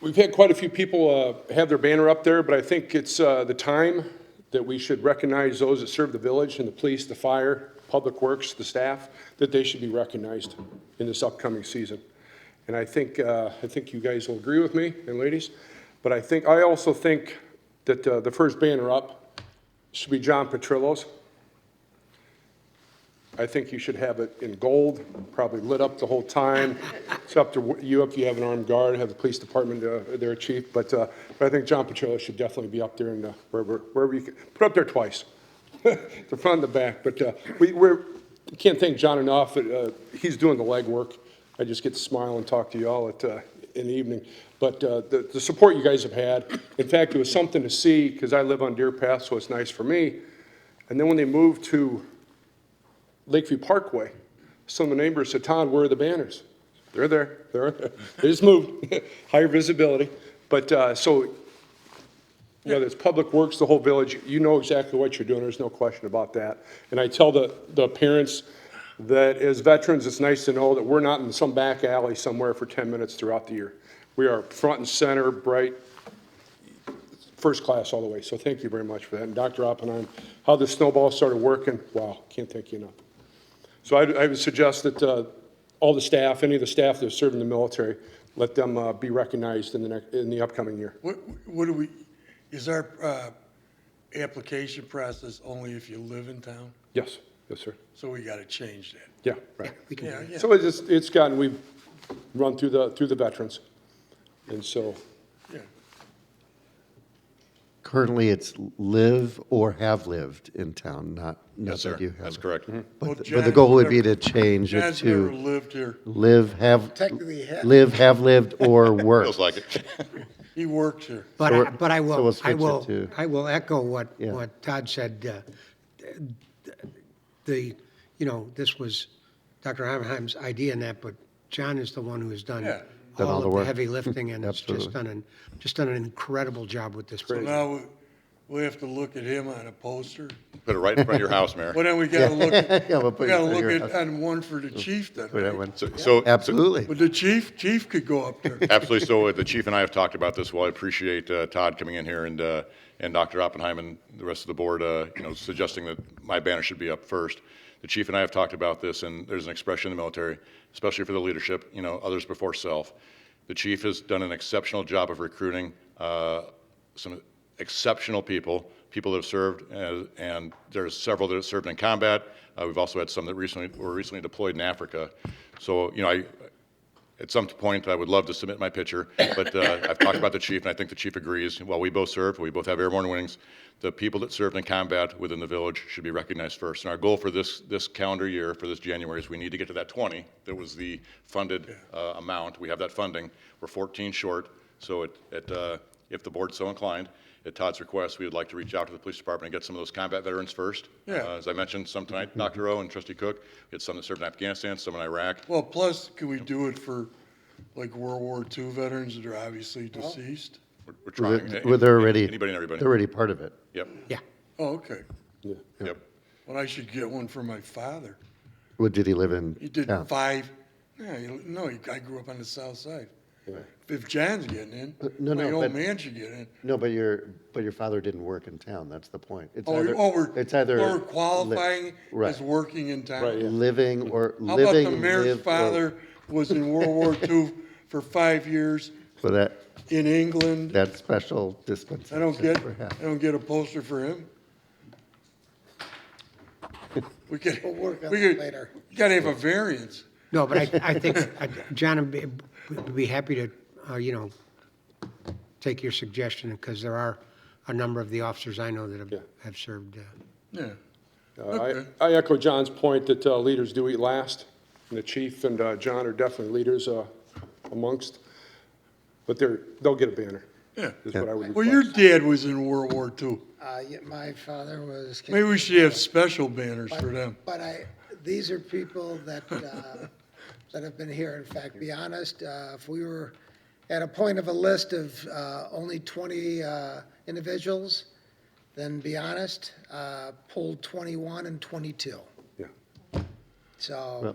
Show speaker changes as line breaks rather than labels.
We've had quite a few people uh, have their banner up there, but I think it's uh, the time that we should recognize those that serve the village and the police, the fire, public works, the staff, that they should be recognized in this upcoming season. And I think, uh, I think you guys will agree with me, and ladies, but I think, I also think that uh, the first banner up should be John Petrillo's. I think you should have it in gold, probably lit up the whole time. It's up to you if you have an armed guard, have the police department uh, there, chief. But, uh, but I think John Petrillo should definitely be up there and uh, wherever, wherever you can, put up there twice, the front and the back. But uh, we, we're, can't thank John enough. Uh, He's doing the legwork. I just get to smile and talk to you all at, uh, in the evening. But uh, the, the support you guys have had, in fact, it was something to see because I live on Deer Path, so it's nice for me. And then when they moved to Lakeview Parkway. Some of the neighbors said, Todd, where are the banners? They're there, they're, there. they just moved, higher visibility. But, uh, so, you know, there's Public Works, the whole village, you know exactly what you're doing, there's no question about that. And I tell the, the parents that as veterans, it's nice to know that we're not in some back alley somewhere for ten minutes throughout the year. We are front and center, bright, first class all the way, so thank you very much for that. And Dr. Oppenheim, how the snowball started working, wow, can't thank you enough. So I, I would suggest that uh, all the staff, any of the staff that are serving the military, let them uh, be recognized in the next, in the upcoming year.
What, what do we, is our, uh, application process only if you live in town?
Yes, yes, sir.
So we gotta change that.
Yeah, right.
We can,
Yeah, yeah.
So it's, just- it's gotten, we've run through the, through the veterans. And so,
yeah.
Currently, it's live or have lived in town, not, not
Yes, sir.
that you have.
That's
it.
correct.
Well,
But the- but the
John's
goal would be
never-
to change it
John's never
to
lived here.
live, have,
Technically, ha-
live, have lived, or work.
Feels like it.
He worked here.
So
But I,
we're-
but I
so we'll
will, I
switch it
will,
to-
I will echo what,
Yeah.
what Todd said. uh, The, you know, this was Dr. Oppenheim's idea and that, but John is the one who has done
Yeah.
Done all
all
the
of the
work.
heavy lifting and has just
Absolutely.
done an, just done an incredible job with this.
So
project.
now we, we have to look at him on a poster.
Put it right in front of your house, Mayor.
Well, then we gotta look, at-
Yeah, we'll
we
put it
gotta
in your
look at,
house.
on one for the chief then.
Put that
right?
one.
So- So,
Absolutely.
But the chief, chief could go up there.
absolutely. So uh, the chief and I have talked about this. Well, I appreciate uh, Todd coming in here and, uh, and Dr. Oppenheim and the rest of the board, uh, you know, suggesting that my banner should be up first. The chief and I have talked about this, and there's an expression in the military, especially for the leadership, you know, others before self. The chief has done an exceptional job of recruiting uh, some exceptional people, people that have served, uh, and there's several that have served in combat. Uh, We've also had some that recently, were recently deployed in Africa. So, you know, I, at some point, I would love to submit my picture, but uh, I've talked about the chief, and I think the chief agrees. While we both served, we both have airborne wings, the people that served in combat within the village should be recognized first. And our goal for this, this calendar year, for this January, is we need to get to that 20 that was the funded uh, amount. We have that funding. We're 14 short, so it- it, uh, if the board's so inclined, at Todd's request, we would like to reach out to the police department and get some of those combat veterans first.
Yeah.
Uh, As I mentioned, some tonight, Dr. O and Trustee Cook, we had some that served in Afghanistan, some in Iraq.
Well, plus, can we do it for like World War II veterans that are obviously deceased?
We're- We're trying.
Well, They're they're already,
Anybody and everybody.
they're already part of it.
Yep,
Yeah.
Oh, okay.
yep.
Well, I should get one for my father.
What, did he live in
He did
town?
five. No, you- no, he- I grew up on the south side. If John's getting in,
no,
my old
no, but-
man should get in.
No, but your, but your father didn't work in town, that's the point. It's
Oh,
either-
oh, we're,
It's either.
we're
li-
qualifying
Right.
as working in
Right, yeah.
town.
Living or,
How about
living,
the mayor's
live, or.
father was in World War II for five years
So that,
in England?
that special
I
dispensation.
don't get,
perhaps.
I don't get a poster for him. We could,
We'll work on
we
that
could,
later.
you gotta have a variance.
No, but I, I think, I- John would be- would be happy to, uh, you know, take your suggestion because there are a number of the officers I know that
Yeah.
have, have served. uh,
Yeah.
Uh,
Okay.
I I echo John's point that uh, leaders do eat last, and the chief and uh, John are definitely leaders uh, amongst, but they're, they'll get a banner.
Yeah.
Is what I would
Well,
request.
your dad was in World War II.
Uh, yeah, my father was.
Maybe we should have special banners for them.
But I, these are people that, uh, that have been here. In fact, be honest, uh, if we were at a point of a list of, uh, only twenty, uh, individuals, then be honest, uh, pulled twenty-one and twenty-two.
Yeah.
So,